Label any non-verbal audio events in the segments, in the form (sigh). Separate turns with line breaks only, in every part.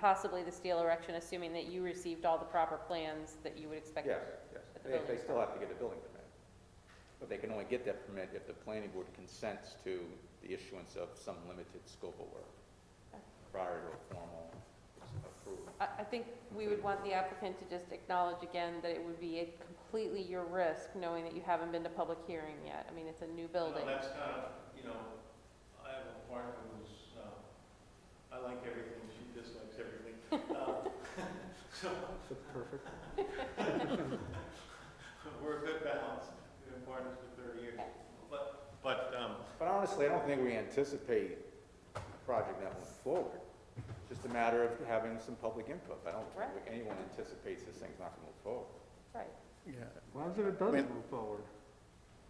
possibly the steel erection, assuming that you received all the proper plans that you would expect?
Yes, yes.
But the
They, they
building-
still have to get a building permit. But they can only get that permit if the planning board consents to the issuance of some limited scope of work prior to a formal approval.
I, I think we would want the applicant to just acknowledge again that it would be at completely your risk, knowing that you haven't been to public hearing yet. I mean, it's a new building.
No, that's kind of, you know, I have a partner who's, um, I like everything, she dislikes everything. Um, (laughs) So,
Perfect.
(laughs) we're a good balance, we've been partners for thirty years. But, but, um,
But honestly, I don't think we anticipate a project that went forward. It's just a matter of having some public input. I don't think
Right.
anyone anticipates this thing's not gonna move forward.
Right.
Yeah. What happens if it doesn't
When-
move forward?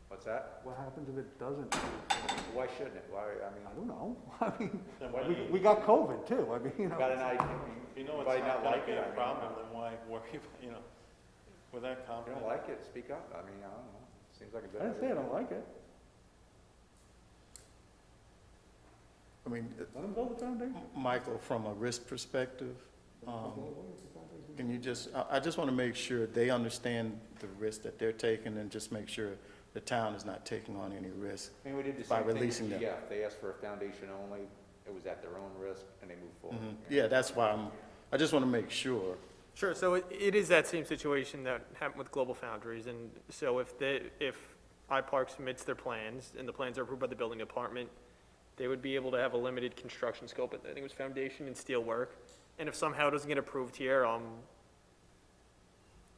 What's that?
What happens if it doesn't? move forward?
Why shouldn't it? Why, I
I
mean,
don't know. (laughs) I mean,
then why,
Why
do
we,
you
we got COVID too. I mean, you
got
know.
an idea, I mean,
if you know it's
might
not
not like
gonna be
it, I
a
mean,
problem, then why worry, about you know, with that
if you
confident.
don't like it, speak up. I mean, I don't know. Seems like a good
I
idea.
didn't say I don't like it.
I mean,
Let them build the foundation.
Michael, from a risk perspective, um,
Well,
can you just, I, I just want to make sure they understand the risk that they're taking and just make sure the town is not taking on any risk.
I mean, we did the
By
same thing
releasing
with
them.
EF. They asked for a foundation only. It was at their own risk and they moved forward.
Mhm. Yeah, that's why I'm, I just want to make sure.
Sure, so it- it is that same situation that happened with Global Foundries, and so if the, if iPark submits their plans, and the plans are approved by the building department, they would be able to have a limited construction scope, I think it was foundation and steel work, and if somehow it doesn't get approved here, um,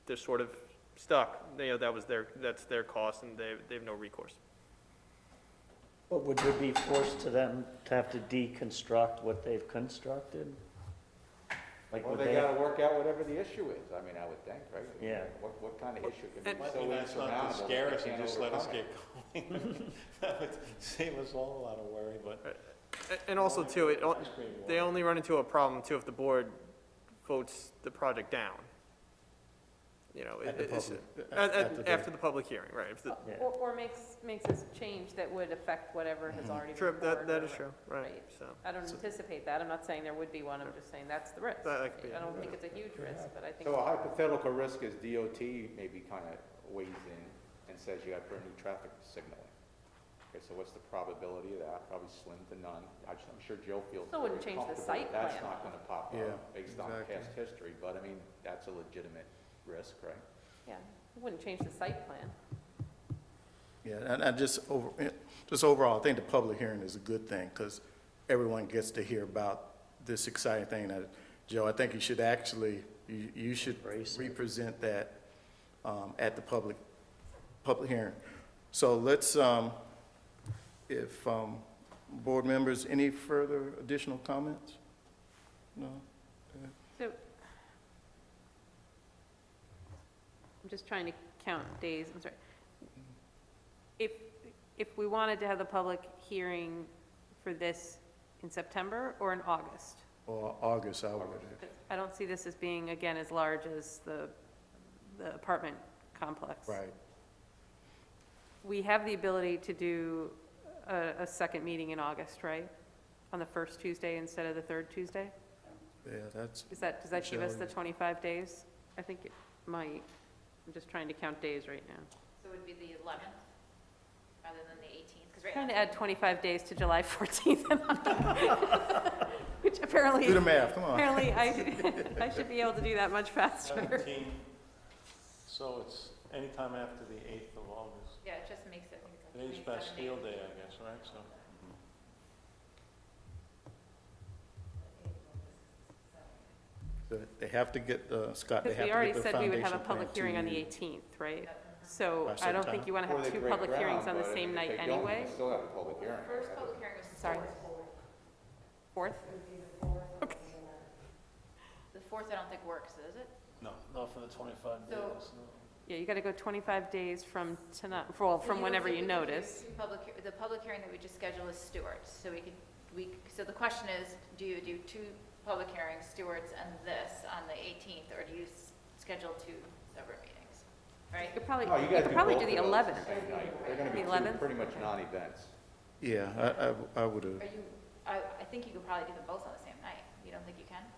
they're sort of stuck, you know, that was their, that's their cost, and they, they have no recourse.
But would there be forced to them to have to deconstruct what they've constructed? Like,
Well,
would
they
they,
gotta work out whatever the issue is. I mean, I would think, right? I mean,
Yeah.
What, what kind of issue can
And-
be
Might be
so
nice not to
insurmountable
scare
that
us
they
and
can't
just let us
overcome
get
it?
going. (laughs) That would save us all a lot of worry, but.
A- And also too, it, al-
Ice cream wall.
they only run into a problem too if the board votes the project down. You know,
At the
it- it's,
public-
at- at-
after the-
after the public hearing, right, if the,
Yeah.
Or, or makes, makes us change that would affect whatever has already been.
Mm-hmm. true, that,
poured
that
or
is true, right, so.
I don't anticipate that, I'm not saying there would be one, I'm just saying that's the risk.
That- that could be
I don't think it's a huge risk, but I think.
So
uh,
a hypothetical risk is DOT maybe kinda weighs in and says you gotta put a new traffic signal in. Okay, so what's the probability of that? Probably slim to none. I just- I'm sure Joe feels
Still wouldn't
very
change the
comfortable
site
that That's
plan.
not gonna pop
Yeah,
up based on
exactly.
past history, but I mean, that's a legitimate risk, right?
Yeah, it wouldn't change the site plan.
Yeah, and I just over, eh, just overall, I think the public hearing is a good thing, because everyone gets to hear about this exciting thing that, Joe, I think you should actually, you, you should
Embrace it.
represent that, um, at the public, public hearing. So let's, um, if, um, board members, any further additional comments? No?
So, I'm just trying to count days, I'm sorry. If, if we wanted to have the public hearing for this in September or in August?
Or August, I would,
I don't see this as being, again, as large as the, the apartment complex.
right.
We have the ability to do a, a second meeting in August, right? On the first Tuesday instead of the third Tuesday?
Yeah, that's,
Is that, does that give us the
Sure.
25 days? I think it might. I'm just trying to count days right now.
So it would be the 11th rather than the 18th? 'Cause right
Trying
now,
to add 25 days to July (laughs) 14th, and October, which apparently,
do the math, come on.
apparently I, I should be able to do that much faster.
17, so it's anytime after the 8th of August.
yeah, it just makes it, I think it's like
Today's
27 days.
Bastille Day, I guess, right? So
So They have to get, uh, Scott, they
Because
have
we
to
already
get the foundation
said we would have a
plan
public
to
hearing on the
you.
18th, right? So
By
I don't
September?
think you want to
Or they
have two
break
public hearings
ground,
on the
but
same
if
night
they don't,
anyway.
they still have a public hearing.
First public hearing was the
Sorry.
4th.
Fourth?
The 4th I don't think works, does it?
Not for the 25
So-
days, no.
Yeah, you got to go 25 days from tonight, well, from
So
whenever
don't
you
think we could do
notice.
two public hea- The public hearing that we just scheduled is Stewart's, so we could, we, c- so the question is, do you do two public hearings, Stewart's and this, on the 18th? Or do you s- schedule two separate meetings,
You
right?
could probably,
No, you
you
guys
could probably
both
do the
of those
11th.
the same night. They're gonna
The
be two
11th?
pretty much
Okay.
non-events.
Yeah, I, I, I would have,
Are you, I, I think you could probably do them both on the same night. You don't think you can?